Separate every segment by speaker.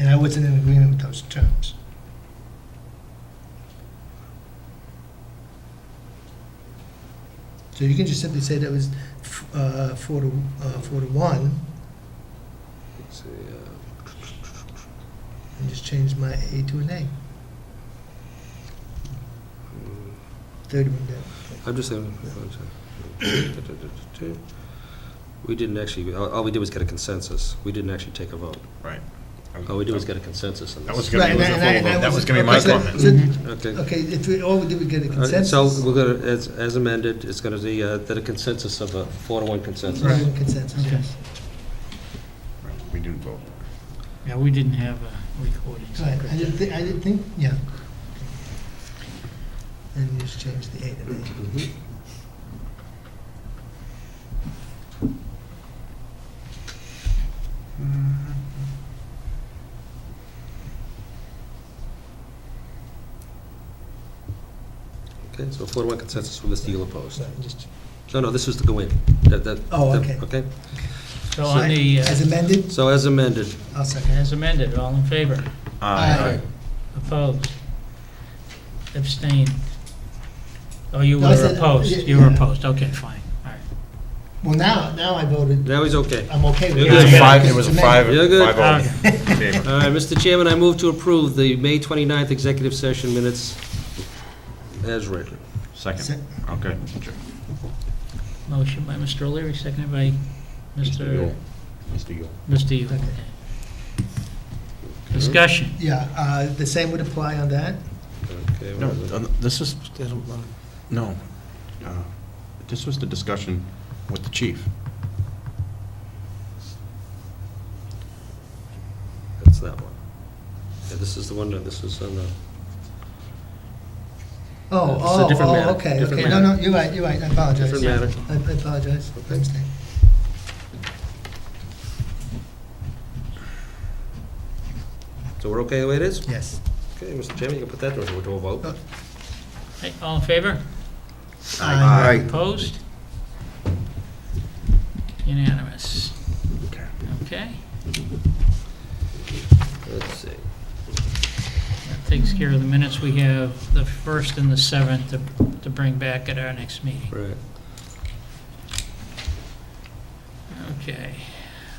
Speaker 1: know it's in agreement with those terms. So you can just simply say that was f- uh, four to, uh, four to one,
Speaker 2: Let's see, uh,
Speaker 1: and just change my A to an A,
Speaker 2: mm,
Speaker 1: thirty-one day.
Speaker 2: I'm just saying. We didn't actually, all all we did was get a consensus. We didn't actually take a vote.
Speaker 3: Right.
Speaker 2: All we did was get a consensus on
Speaker 3: That was
Speaker 2: this.
Speaker 3: gonna be,
Speaker 1: Right, and I- and I- and I
Speaker 3: that was gonna be my
Speaker 1: okay, so-
Speaker 3: comment.
Speaker 1: so-
Speaker 2: Okay.
Speaker 1: Okay, if we, oh, did we get a
Speaker 2: All right, Uh, So
Speaker 1: consensus?
Speaker 2: we're going to, as as amended, it's going to be uh, that a consensus of a four to one consensus.
Speaker 1: Right, Consensus, yes.
Speaker 3: We didn't vote.
Speaker 4: Yeah, we didn't have a recording
Speaker 1: Right, I didn't
Speaker 4: secretary.
Speaker 1: think, I didn't think, yeah. And you just change the A to an A.
Speaker 2: Mhm. Okay, so four to one consensus with a steel opposed.
Speaker 1: Right, just-
Speaker 2: No, no, this was to go in. That- that-
Speaker 1: Oh,
Speaker 2: that-
Speaker 1: okay.
Speaker 2: Okay,
Speaker 4: So on the,
Speaker 1: As
Speaker 4: uh,
Speaker 1: amended,
Speaker 2: so as amended,
Speaker 1: I'll second.
Speaker 4: as amended, all in favor?
Speaker 1: Aye.
Speaker 4: Opposed? Abstained? Oh, you
Speaker 1: No, I
Speaker 4: were
Speaker 1: said- uh,
Speaker 4: opposed,
Speaker 1: yeah,
Speaker 4: you were
Speaker 1: yeah.
Speaker 4: opposed, okay, fine, all right.
Speaker 1: Well, now, now I voted,
Speaker 2: now he's okay.
Speaker 1: I'm okay with
Speaker 2: It
Speaker 1: it.
Speaker 2: was a
Speaker 1: Yeah,
Speaker 3: five, it
Speaker 1: because
Speaker 3: was a
Speaker 1: it's
Speaker 3: five,
Speaker 1: amended.
Speaker 2: You're good.
Speaker 3: five oh in favor.
Speaker 2: All right, Mr. Chairman, I move to approve the May 29th executive session minutes as written.
Speaker 3: Second,
Speaker 1: Se-
Speaker 3: okay.
Speaker 4: Motion by Mr. O'Leary, seconded by Mr.
Speaker 3: Mr. Yule.
Speaker 4: Mr. Yule.
Speaker 1: Okay.
Speaker 4: Discussion,
Speaker 1: Yeah, uh, the same would apply on that?
Speaker 2: Uh, Okay,
Speaker 5: No,
Speaker 2: whatever.
Speaker 5: uh, this is, no. Uh, This was the discussion with the chief.
Speaker 2: That's that one. Yeah, this is the one, that this is uh, on the,
Speaker 1: Oh,
Speaker 2: It's a
Speaker 1: oh,
Speaker 2: different matter,
Speaker 1: oh, okay,
Speaker 2: different
Speaker 1: okay, no, no,
Speaker 2: matter.
Speaker 1: you're right, you're right, I apologize.
Speaker 2: Different matter.
Speaker 1: I I apologize, I understand.
Speaker 2: so we're okay the way it is?
Speaker 1: Yes.
Speaker 2: Okay, Mr. Chairman, you can put that to a to a vote.
Speaker 4: Hey, all in favor?
Speaker 1: Aye.
Speaker 4: Opposed? Unanimous.
Speaker 5: Okay.
Speaker 4: Okay,
Speaker 2: Let's see.
Speaker 4: that takes care of the minutes. We have the first and the seventh to, to bring back at our next meeting.
Speaker 2: Right.
Speaker 4: Okay.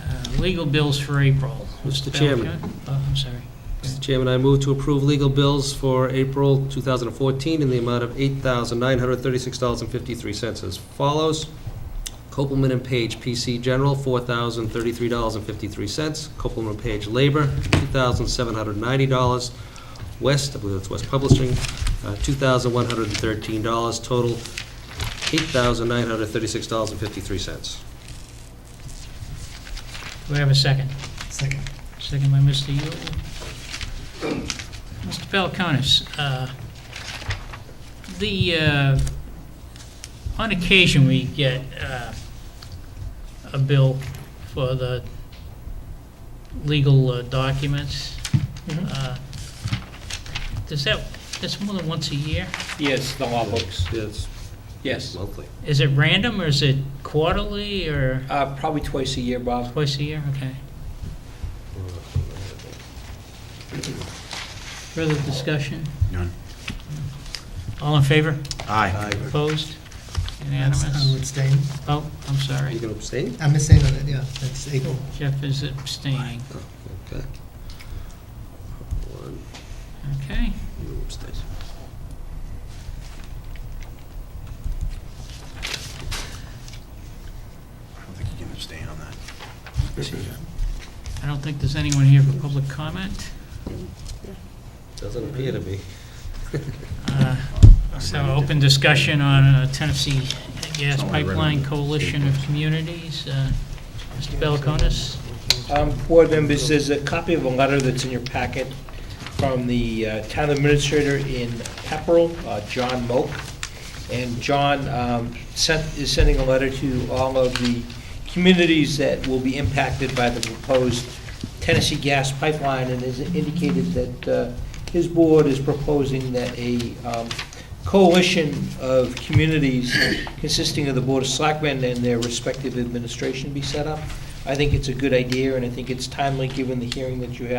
Speaker 4: Uh, Legal bills for April.
Speaker 2: Mr. Chairman.
Speaker 4: Oh, I'm sorry.
Speaker 2: Mr. Chairman, I move to approve legal bills for April 2014 in the amount of $8,936.53 as follows. Copeland and Page PC General, $4,033.53. Copeland and Page Labor, $2,790. West, I believe that's West Publishing, uh, $2,113. Total, $8,936.53.
Speaker 4: Do we have a second?
Speaker 1: Second.
Speaker 4: Second by Mr. Yule. Mr. Falconis, uh, the, uh, on occasion, we get uh, a bill for the legal uh, documents.
Speaker 1: Mhm.
Speaker 4: Uh, Does that, that's more than once a year?
Speaker 6: Yes, the law books,
Speaker 2: Yes,
Speaker 6: yes.
Speaker 2: monthly.
Speaker 4: Is it random, or is it quarterly, or
Speaker 6: Uh, Probably twice a year, Bob.
Speaker 4: twice a year? Okay. Further discussion?
Speaker 5: None.
Speaker 4: All in favor?
Speaker 5: Aye.
Speaker 4: Opposed?
Speaker 1: That's- I'm
Speaker 4: Unanimous?
Speaker 1: abstaining,
Speaker 4: Oh, I'm
Speaker 2: You
Speaker 4: sorry.
Speaker 2: can abstain?
Speaker 1: I'm abstaining on that, yeah, that's April.
Speaker 4: Jeff is abstaining.
Speaker 2: Oh, Okay. One,
Speaker 4: Okay.
Speaker 2: you abstain.
Speaker 5: I don't think you can abstain on that.
Speaker 4: I don't think there's anyone here for public comment.
Speaker 2: Doesn't appear to be.
Speaker 4: Uh, So open discussion on uh, Tennessee Gas
Speaker 5: Someone read it.
Speaker 4: Pipeline Coalition of Communities. Uh, Mr. Belkonis?
Speaker 6: Um, Board members, there's a copy of a letter that's in your packet from the uh, town administrator in Pepperell, uh, John Moak. And John um, sent, is sending a letter to all of the communities that will be impacted by the proposed Tennessee gas pipeline and has indicated that uh, his board is proposing that a um, coalition of communities consisting of the Board of Selectmen and their respective administration be set up. I think it's a good idea, and I think it's timely, given the hearing that you had